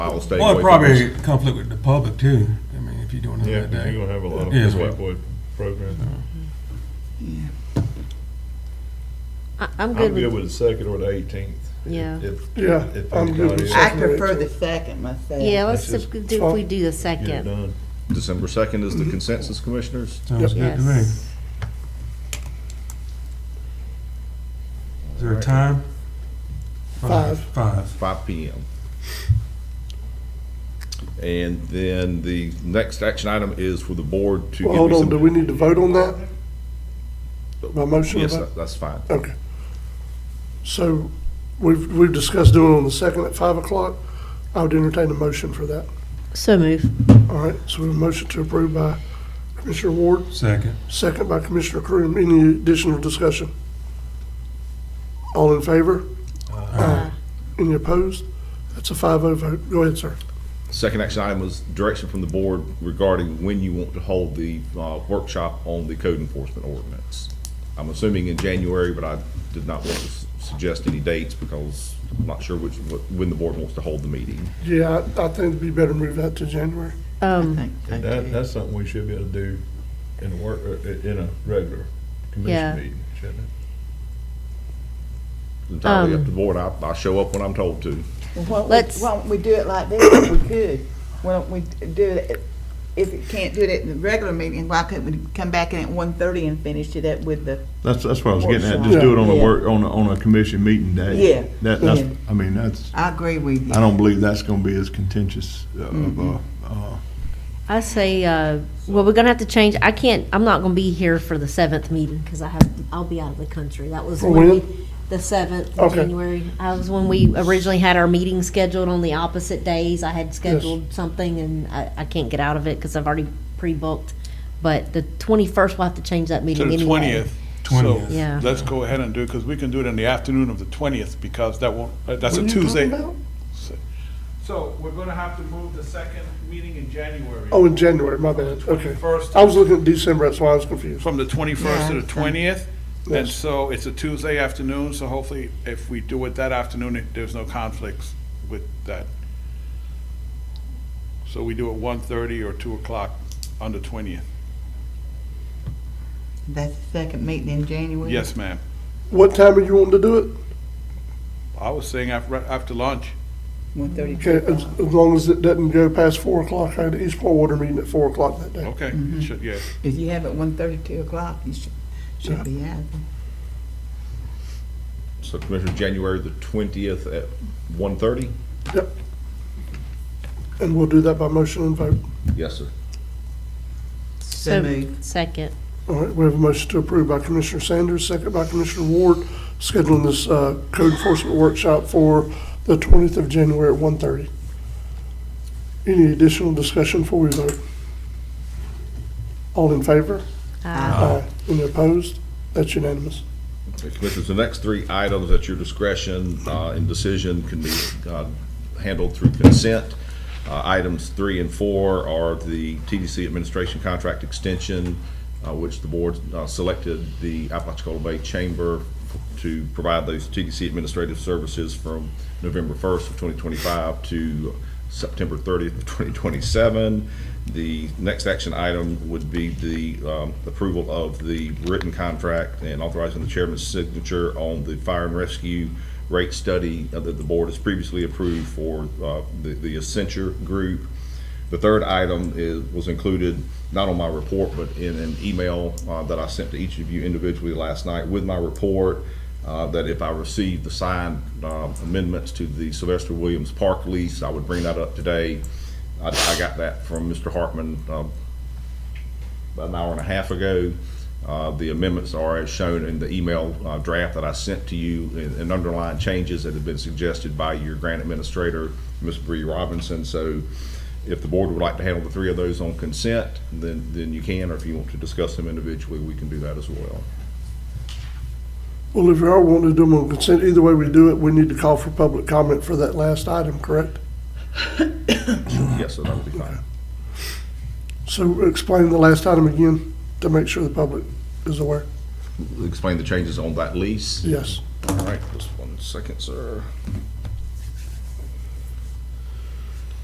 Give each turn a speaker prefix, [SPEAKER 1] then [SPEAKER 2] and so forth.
[SPEAKER 1] I will stay away
[SPEAKER 2] Well, it
[SPEAKER 1] from
[SPEAKER 2] probably
[SPEAKER 1] this.
[SPEAKER 2] conflict with the public too, I mean, if you're doing it
[SPEAKER 3] Yeah,
[SPEAKER 2] that
[SPEAKER 3] because you're
[SPEAKER 2] day.
[SPEAKER 3] gonna have a lot of
[SPEAKER 2] Yeah.
[SPEAKER 3] people with programs.
[SPEAKER 4] I- I'm good
[SPEAKER 3] I'm good
[SPEAKER 4] with,
[SPEAKER 3] with the second or the eighteenth.
[SPEAKER 4] Yeah.
[SPEAKER 5] Yeah, I'm good with
[SPEAKER 3] Get
[SPEAKER 5] second.
[SPEAKER 6] I prefer the second myself.
[SPEAKER 4] yeah, let's,
[SPEAKER 3] Let's
[SPEAKER 4] do-
[SPEAKER 3] just-
[SPEAKER 4] do- if we do the
[SPEAKER 3] it
[SPEAKER 4] second.
[SPEAKER 3] done.
[SPEAKER 1] December second is the consensus, commissioners.
[SPEAKER 2] Sounds good to me. Is
[SPEAKER 4] Yes.
[SPEAKER 2] there a time?
[SPEAKER 5] Five.
[SPEAKER 2] Five.
[SPEAKER 1] five PM. And then the next action item is for the board to.
[SPEAKER 5] Well,
[SPEAKER 1] give
[SPEAKER 5] hold
[SPEAKER 1] me
[SPEAKER 5] on,
[SPEAKER 1] some-
[SPEAKER 5] do we need to vote on that? By motion?
[SPEAKER 1] Yes,
[SPEAKER 5] about-
[SPEAKER 1] that- that's fine.
[SPEAKER 5] Okay. So we've, we've discussed doing it on the second at five o'clock. I would entertain a motion for that.
[SPEAKER 4] So move.
[SPEAKER 5] All right, so we have a motion to approve by Commissioner Ward,
[SPEAKER 2] Second.
[SPEAKER 5] second by Commissioner Crew. Any additional discussion? All in favor? Aye. Any opposed? That's a five oh vote. Go ahead, sir.
[SPEAKER 1] Second action item was direction from the board regarding when you want to hold the uh, workshop on the code enforcement ordinance. I'm assuming in January, but I did not want to s- suggest any dates because I'm not sure which, what- when the board wants to hold the meeting.
[SPEAKER 5] Yeah, I, I think it'd be better move that to January.
[SPEAKER 6] I
[SPEAKER 4] Um,
[SPEAKER 6] think so,
[SPEAKER 3] And that,
[SPEAKER 6] too.
[SPEAKER 3] that's something we should be able to do in a work, uh, in a regular
[SPEAKER 4] Yeah.
[SPEAKER 3] commission meeting, shouldn't it?
[SPEAKER 1] Entirely up
[SPEAKER 4] Um.
[SPEAKER 1] to the board. I, I show up when I'm told to.
[SPEAKER 6] Well, why don't we-
[SPEAKER 4] Let's-
[SPEAKER 6] Why don't we do it like this, if we could? Why don't we do it, if we can't do it at the regular meeting, why couldn't we come back in at one thirty and finish it up with the,
[SPEAKER 7] That's, that's what I was getting at, just
[SPEAKER 6] Workshop.
[SPEAKER 7] do it on a
[SPEAKER 6] Yeah.
[SPEAKER 7] work, on a, on a commission meeting day.
[SPEAKER 6] Yeah,
[SPEAKER 7] That, that's,
[SPEAKER 6] yeah.
[SPEAKER 7] I mean, that's,
[SPEAKER 6] I agree with you.
[SPEAKER 7] I don't believe that's gonna be as contentious of, uh, uh,
[SPEAKER 4] I say, uh, well, we're gonna have to change, I can't, I'm not gonna be here for the seventh meeting, because I have, I'll be out of the country. That was
[SPEAKER 5] For
[SPEAKER 4] when
[SPEAKER 5] when?
[SPEAKER 4] we, the seventh,
[SPEAKER 5] Okay.
[SPEAKER 4] January. That was when we originally had our meeting scheduled on the opposite days. I had scheduled something, and I, I can't get out of it, because I've already pre-booked. But the twenty-first, we'll have to change that
[SPEAKER 8] to
[SPEAKER 4] meeting
[SPEAKER 8] the
[SPEAKER 4] anyway.
[SPEAKER 8] twentieth. So
[SPEAKER 2] 20th.
[SPEAKER 4] Yeah.
[SPEAKER 8] let's go ahead and do it, because we can do it in the afternoon of the twentieth, because that won't, uh, that's
[SPEAKER 5] What are
[SPEAKER 8] a
[SPEAKER 5] you talking
[SPEAKER 8] Tuesday.
[SPEAKER 5] about?
[SPEAKER 9] So we're gonna have to move the second meeting in January.
[SPEAKER 5] Oh, in January, my bad, okay.
[SPEAKER 9] First,
[SPEAKER 5] I was looking at December, that's why I was confused.
[SPEAKER 8] From the twenty-first to the twentieth, and
[SPEAKER 5] Yes.
[SPEAKER 8] so it's a Tuesday afternoon, so hopefully if we do it that afternoon, it- there's no conflicts with that. So we do it one-thirty or two o'clock on the twentieth.
[SPEAKER 6] That's the second meeting in January?
[SPEAKER 8] Yes, ma'am.
[SPEAKER 5] What time are you wanting to do it?
[SPEAKER 8] I was saying after, after lunch.
[SPEAKER 6] One thirty.
[SPEAKER 5] Okay, as, as long as it doesn't go past four o'clock, I had the Eastport Water meeting at four o'clock that day.
[SPEAKER 8] Okay, should, yeah.
[SPEAKER 6] If you have it one thirty, two o'clock, you should, should be out.
[SPEAKER 1] So Commissioner, January the twentieth at one thirty?
[SPEAKER 5] And we'll do that by motion and vote.
[SPEAKER 1] Yes, sir.
[SPEAKER 4] So,
[SPEAKER 6] So moved.
[SPEAKER 4] second.
[SPEAKER 5] All right, we have a motion to approve by Commissioner Sanders, second by Commissioner Ward, scheduling this, uh, code enforcement workshop for the twentieth of January at one thirty. Any additional discussion before we vote? All in favor? Aye. Any opposed? That's unanimous.
[SPEAKER 1] Commissioners, the next three items at your discretion uh, and decision can be uh, handled through consent. Uh, Items three and four are the TDC Administration Contract Extension, uh, which the board uh, selected the Apalachicola Bay Chamber to provide those TDC administrative services from November 1st of 2025 to September 30th of 2027. The next action item would be the um, approval of the written contract and authorizing the chairman's signature on the fire and rescue rate study that the board has previously approved for uh, the the Accenture Group. The third item is, was included, not on my report, but in an email uh, that I sent to each of you individually last night with my report, uh, that if I received the signed uh, amendments to the Sylvester Williams Park lease, I would bring that up today. I, I got that from Mr. Hartman um, about an hour and a half ago. Uh, The amendments are as shown in the email uh, draft that I sent to you and and underlying changes that have been suggested by your grant administrator, Ms. Bree Robinson. So if the board would like to handle the three of those on consent, then, then you can, or if you want to discuss them individually, we can do that as well.
[SPEAKER 5] Well, if you are wanting to do them on consent, either way we do it, we need to call for public comment for that last item, correct?
[SPEAKER 1] Yes, so that would be fine.
[SPEAKER 5] So explain the last item again to make sure the public is aware.
[SPEAKER 1] Explain the changes on that lease.
[SPEAKER 5] Yes.
[SPEAKER 1] All right, just one second, sir.